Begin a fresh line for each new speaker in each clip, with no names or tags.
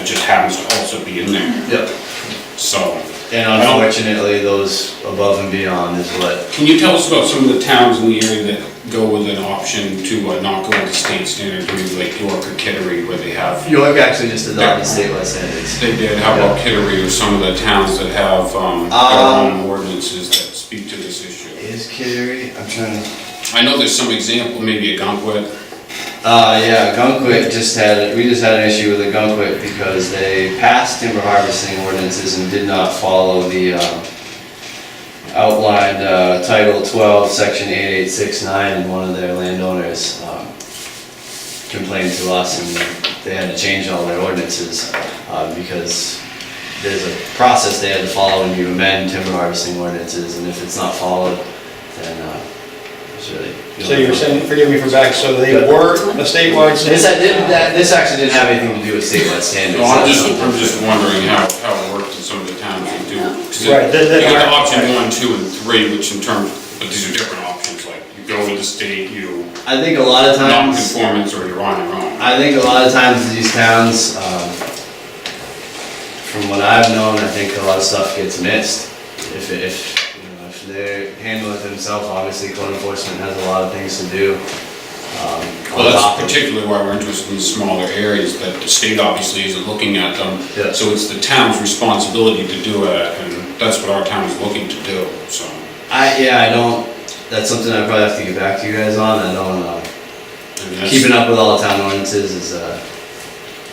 it just happens to also be in there,
Yep.
so.
And
I don't-
unfortunately, those above and beyond is what,
Can you tell us about some of the towns in the area that go with an option to uh, not go with the state standard, maybe like York or Kittery, where they have,
York actually just adopted statewide standards.
they did, how about Kittery or some of the towns that have um, their own ordinances that speak to this issue?
Is Kittery, I'm trying to,
I know there's some example, maybe a Gunkwit,
uh, yeah, Gunkwit just had, we just had an issue with the Gunkwit because they passed timber harvesting ordinances and did not follow the, um, outlined, uh, Title twelve, section eight eight six nine, and one of their landowners, um, complained to us and they had to change all their ordinances, uh, because there's a process they had to follow when you amend timber harvesting ordinances, and if it's not followed, then, uh, it's really.
So you're saying, forgive me for back, so they were a statewide
This,
standard?
I didn't- that- this actually didn't have anything to do with statewide standards.
No, I'm just, I'm just wondering how, how it worked in some of the towns that do. 'cause it-
Right, that- that-
You got option one, two, and three, which in terms, but these are different options, like you go with the state, you
I think a lot of times,
non-conformance, or you're on your own.
I think a lot of times these towns, um, from what I've known, I think a lot of stuff gets missed. If, if, you know, if they handle it themselves, obviously code enforcement has a lot of things to do. um, on
Well,
top
that's
of-
particularly why we're interested in smaller areas, that the state obviously isn't looking at them.
Yeah.
So it's the town's responsibility to do it, and that's what our town is looking to do, so.
I, yeah, I don't, that's something I probably have to get back to you guys on, I don't, uh,
and that's-
keeping up with all the town ordinances is, uh,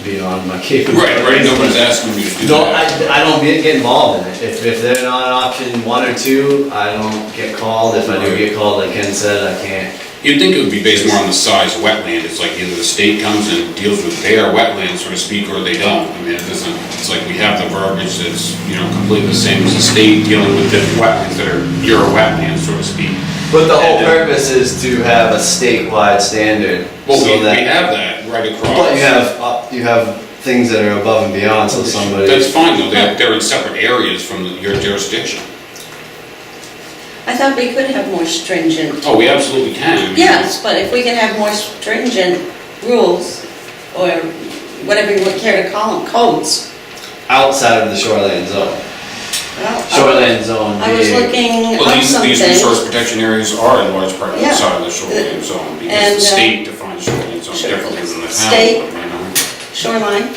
beyond my capabilities.
Right, right, nobody's asking you to do
No, I,
that.
I don't get get involved in it. If, if they're not option one or two, I don't get called. If I do get called, like Ken said, I can't.
You'd think it would be based more on the size of wetland, it's like either the state comes and deals with their wetland, so to speak, or they don't. I mean, it doesn't, it's like we have the verbiage that's, you know, completely the same as the state dealing with different wetlands that are your wetland, so to speak.
But the whole
And, uh,
purpose is to have a statewide standard.
Well, we,
so that-
we have that right across.
But you have, up- you have things that are above and beyond, so somebody.
That's fine, though, they're, they're in separate areas from your jurisdiction.
I thought we could have more stringent,
Oh, we absolutely can.
yes, but if we can have more stringent rules, or whatever you would care to call them, codes.
Outside of the shoreline zone.
Well, I-
Shoreline zone
I was
being,
looking
Well,
up
these, these
something.
resource protection areas are in large part
Yeah.
outside of the shoreline zone, because
And,
the
uh,
state defines shoreline zone differently than the town.
State-
you know.
Shoreline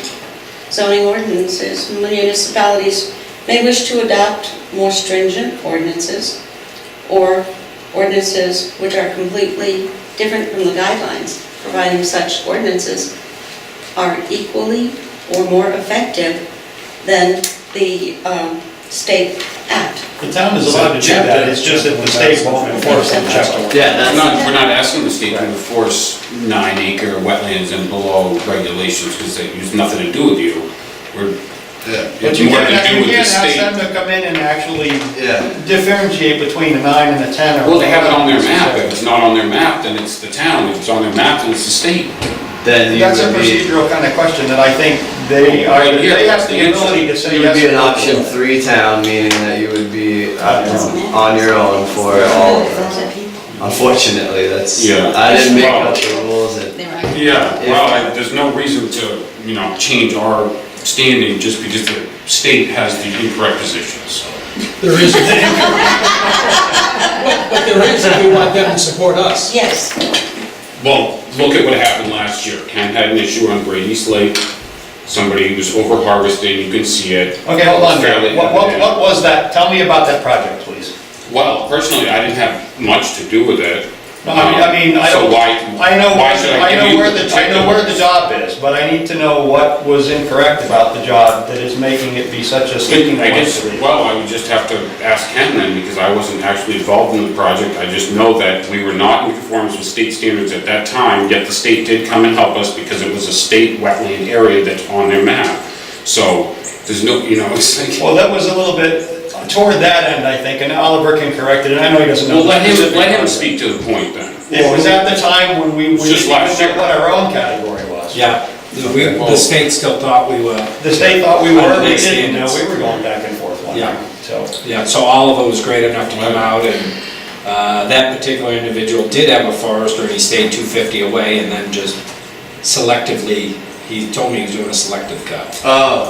zoning ordinances, municipalities may wish to adopt more stringent ordinances or ordinances which are completely different from the guidelines, providing such ordinances are equally or more effective than the um, state act.
The town is allowed to do that, it's just that the state won't enforce the chapter.
yeah,
We're
that's,
not, we're not asking the state to enforce nine acre wetlands and below regulations, because they use nothing to do with you. We're,
But
it's
you
more
can't,
to do
you
with the
can't ask
state.
them to come in and actually uh,
yeah.
differentiate between a nine and a 10 or...
Well, they have it on their map, if it's not on their map, then it's the town, if it's on their map, then it's the state.
Then you
That's a
would be,
procedural kind of question that I think they are,
Right here,
they have
that's the
the ability to
answer.
say
you
yes.
would be an
or no.
option three town, meaning that you would be uh, on your own for all of them. Unfortunately, that's,
Yeah.
I didn't make
Wow.
up the rules and,
Yeah, well, I- there's no reason to, you know, change our standing just because the state has the incorrect position, so.
There is. But but there is, if we want them to support us.
Yes.
Well, look at what happened last year. Ken had an issue on Brady's Lake. Somebody was over harvesting, you can see it.
Okay, hold on,
Fairly-
what, what, what was that, tell me about that project, please.
Well, personally, I didn't have much to do with it. Um,
No, I mean, I mean, I
So
don't,
why,
I know,
why should I
I
give
know
you
where the, I know where the job is, but I need to know what was incorrect about the job that is making it be such a sticking
I
point
guess,
for you.
well, I would just have to ask Ken then, because I wasn't actually involved in the project. I just know that we were not in conformance with state standards at that time, yet the state did come and help us because it was a state wetland area that's on their map. So, there's no, you know, it's like.
Well, that was a little bit toward that end, I think, and Oliver can correct it, and I know he doesn't know.
Well,
the
let him,
specific
let him
project.
speak to the point then.
It was at the time when we, we
Just
didn't
last
know
year.
what our own category was.
Yeah, we- the state still thought we were,
The state thought we were, we
Underneath
didn't, no,
standards.
we were going back and forth one
Yeah.
night, so.
yeah, so Oliver was great enough to come out, and uh, that particular individual did have a forester, and he stayed 250 away, and then just selectively he told me he was doing a selective cut.
Oh,